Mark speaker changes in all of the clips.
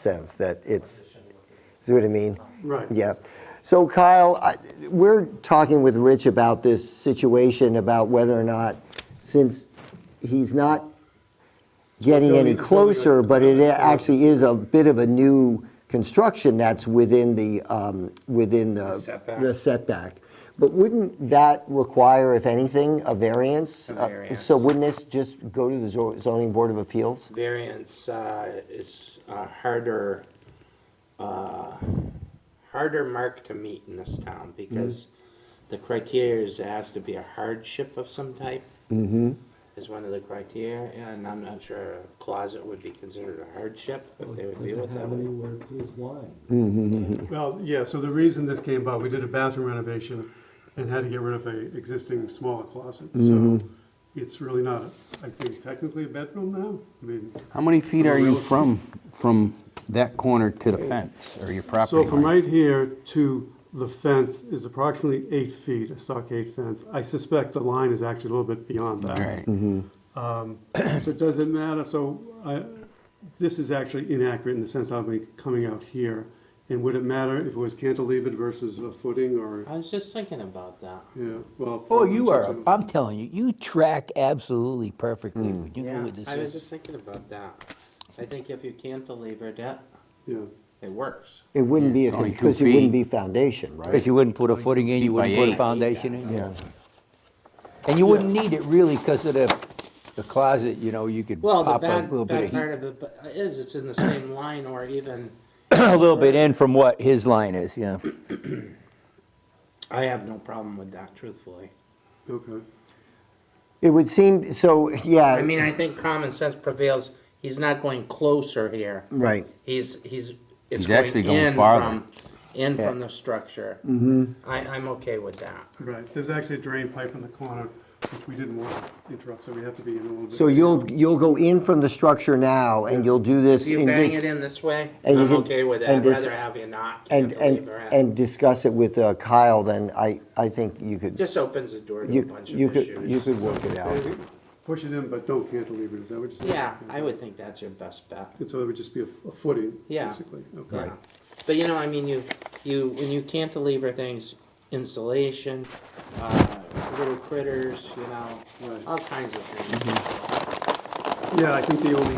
Speaker 1: sense that it's, see what I mean?
Speaker 2: Right.
Speaker 1: Yeah. So Kyle, I- we're talking with Rich about this situation about whether or not, since he's not getting any
Speaker 2: Building- building a-
Speaker 1: closer, but it actually is a bit of a new construction that's within the, um, within the.
Speaker 3: Setback.
Speaker 1: The setback. But wouldn't that require, if anything, a variance?
Speaker 3: A
Speaker 1: Uh,
Speaker 3: variance.
Speaker 1: So wouldn't this just go to the zo- zoning board of appeals?
Speaker 3: variance uh, is a harder, uh, harder mark to meet in this town because the criteria is it has to be a hardship of some type. Is one of the criteria, and I'm not sure a closet would be considered a hardship, if they would deal with that. way.
Speaker 2: Well, yeah, so the reason this came about, we did a bathroom renovation and had to get rid of a existing smaller closet, so
Speaker 4: Mm-hmm.
Speaker 2: it's really not, I think technically a bedroom now, I mean,
Speaker 4: Uh,
Speaker 5: How many feet are you
Speaker 2: Real-
Speaker 5: from, from that corner to the fence or your property
Speaker 2: so
Speaker 5: line?
Speaker 2: from right here to the fence is approximately eight feet, a stockade fence. I suspect the line is actually a little bit beyond that.
Speaker 5: Right.
Speaker 4: Mm-hmm.
Speaker 2: So does it matter? So I, this is actually inaccurate in the sense I'll be coming out here. And would it matter if it was cantilevered versus a footing or,
Speaker 3: I was just thinking about that.
Speaker 2: yeah, well.
Speaker 4: Oh, you are, I'm telling you, you track absolutely perfectly
Speaker 5: Mm.
Speaker 4: when you go
Speaker 3: Yeah,
Speaker 4: with this.
Speaker 3: I was
Speaker 4: is.
Speaker 3: just thinking about that. I think if you cantilever that,
Speaker 2: Yeah.
Speaker 3: it works.
Speaker 1: It wouldn't be,
Speaker 5: it's only two
Speaker 1: because it wouldn't
Speaker 5: feet.
Speaker 1: be foundation, right?
Speaker 4: Because you wouldn't put a footing in, you
Speaker 5: by
Speaker 4: wouldn't put a
Speaker 5: eight.
Speaker 4: foundation in. Yeah. And you wouldn't need it really because of the, the closet, you know, you could
Speaker 3: Well, the
Speaker 4: pop a
Speaker 3: bad,
Speaker 4: little bit
Speaker 3: bad
Speaker 4: of heat.
Speaker 3: part of it bu- is it's in the same line or even,
Speaker 4: A little bit in from what his line is, yeah.
Speaker 3: I have no problem with that, truthfully.
Speaker 2: Okay.
Speaker 1: It would seem, so,
Speaker 3: I
Speaker 1: yeah,
Speaker 3: mean, I think common sense prevails. He's not going closer here.
Speaker 1: right.
Speaker 3: He's, he's, it's
Speaker 5: He's actually
Speaker 3: going
Speaker 5: going
Speaker 3: in
Speaker 5: farther.
Speaker 3: from, in
Speaker 4: Yeah.
Speaker 3: from the structure. Mm-hmm. I, I'm okay with that.
Speaker 2: Right, there's actually a drain pipe in the corner, which we didn't want to interrupt, so we have to be in a little bit.
Speaker 1: So you'll, you'll go in from the structure now, and you'll do this,
Speaker 3: If you
Speaker 1: in
Speaker 3: bang
Speaker 1: this-
Speaker 3: it in this way,
Speaker 1: and you
Speaker 3: I'm
Speaker 1: can-
Speaker 3: okay with that.
Speaker 1: and
Speaker 3: I'd
Speaker 1: this-
Speaker 3: rather have you not
Speaker 1: and, and,
Speaker 3: cantilever it.
Speaker 1: and discuss it with uh, Kyle, then I, I think you could,
Speaker 3: Just opens the door to a
Speaker 1: you
Speaker 3: bunch
Speaker 1: you
Speaker 3: of
Speaker 1: could, you
Speaker 3: issues.
Speaker 1: could work it out.
Speaker 2: Push it in, but don't cantilever it, is that what you're saying?
Speaker 3: Yeah, I would think that's your best bet.
Speaker 2: And so it would just be a a footing,
Speaker 3: Yeah.
Speaker 2: basically, okay.
Speaker 3: Yeah. But you know, I mean, you, you, when you cantilever things, insulation, uh, little critters, you know,
Speaker 2: Right.
Speaker 3: all kinds of things.
Speaker 2: Yeah, I think the only,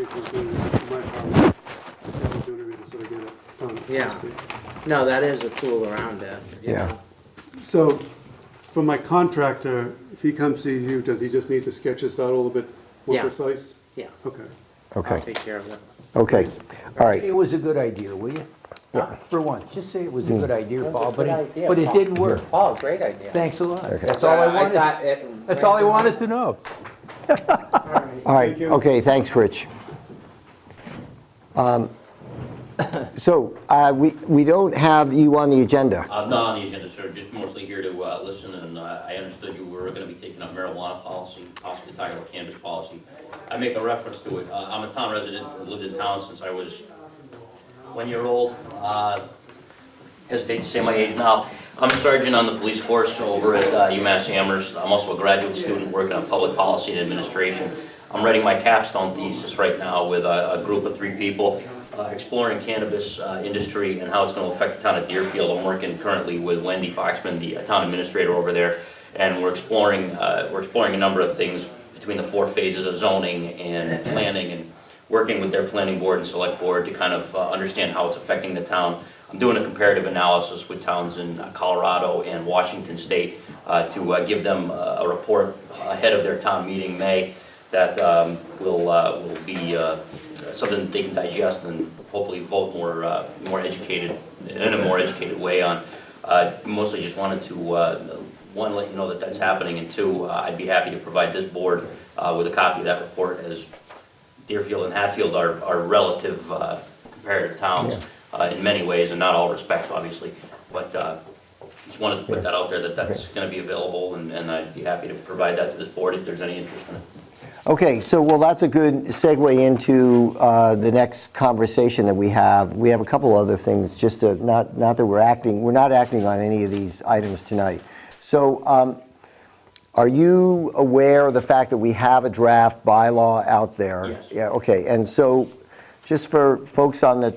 Speaker 2: it was being, my problem, that was the only reason, so I get it. done.
Speaker 3: Yeah. No, that is a tool around it. you
Speaker 1: Yeah.
Speaker 3: know.
Speaker 2: So, for my contractor, if he comes to you, does he just need to sketch this out a little bit more
Speaker 3: Yeah.
Speaker 2: precise?
Speaker 3: Yeah.
Speaker 2: Okay,
Speaker 3: I'll
Speaker 1: Okay,
Speaker 3: take care of it.
Speaker 1: okay, all right.
Speaker 4: It was a good idea, will you? Huh? For once, just say it was a good idea,
Speaker 3: was a
Speaker 4: Paul, but
Speaker 3: good
Speaker 4: it,
Speaker 3: idea,
Speaker 4: but it
Speaker 3: Paul.
Speaker 4: didn't work.
Speaker 3: Oh, great idea.
Speaker 4: Thanks a lot.
Speaker 1: Okay.
Speaker 4: That's all I wanted,
Speaker 3: thought it-
Speaker 4: that's all I wanted to know.
Speaker 3: All right.
Speaker 1: All right,
Speaker 2: Thank you.
Speaker 1: okay, thanks, Rich. Um, So, uh, we, we don't have you on the agenda.
Speaker 6: I'm not on the agenda, sir, just mostly here to uh, listen, and uh, I understood you were gonna be taking up marijuana policy, possibly talking about cannabis policy. I make a reference to it, Uh, I'm a town resident, I've lived in town since I was one year old. Uh, Hesitate to say my age now. I'm a sergeant on the police force over at uh, UMass Amherst. I'm also a graduate student working on public policy and administration. I'm writing my capstone thesis right now with a a group of three people, uh, exploring cannabis uh, industry and how it's going to affect the town of Deerfield. I'm working currently with Wendy Foxman, the uh, town administrator over there, and we're exploring, uh, we're exploring a number of things between the four phases of zoning and planning and working with their planning board and select board to kind of uh, understand how it's affecting the town. I'm doing a comparative analysis with towns in uh, Colorado and Washington State uh, to uh, give them uh, a report ahead of their town meeting May that um, will, uh, will be uh, something that they can digest and hopefully vote more, uh, more educated, in a more educated way on. Uh, Mostly just wanted to, uh, one, let you know that that's happening, and two, uh, I'd be happy to provide this board uh, with a copy of that report as Deerfield and Hatfield are, are relative uh, comparative towns uh, in many ways, and not all respects, obviously. But uh, just wanted to put that out there, that that's going to be available, and, and I'd be happy to provide that to this board if there's any interest in it.
Speaker 1: Okay, so, well, that's a good segue into uh, the next conversation that we have. We have a couple other things, just to, not, not that we're acting, we're not acting on any of these items tonight. So, um, are you aware of the fact that we have a draft bylaw out there?
Speaker 6: Yes.
Speaker 1: Yeah, okay, and so, just for folks on the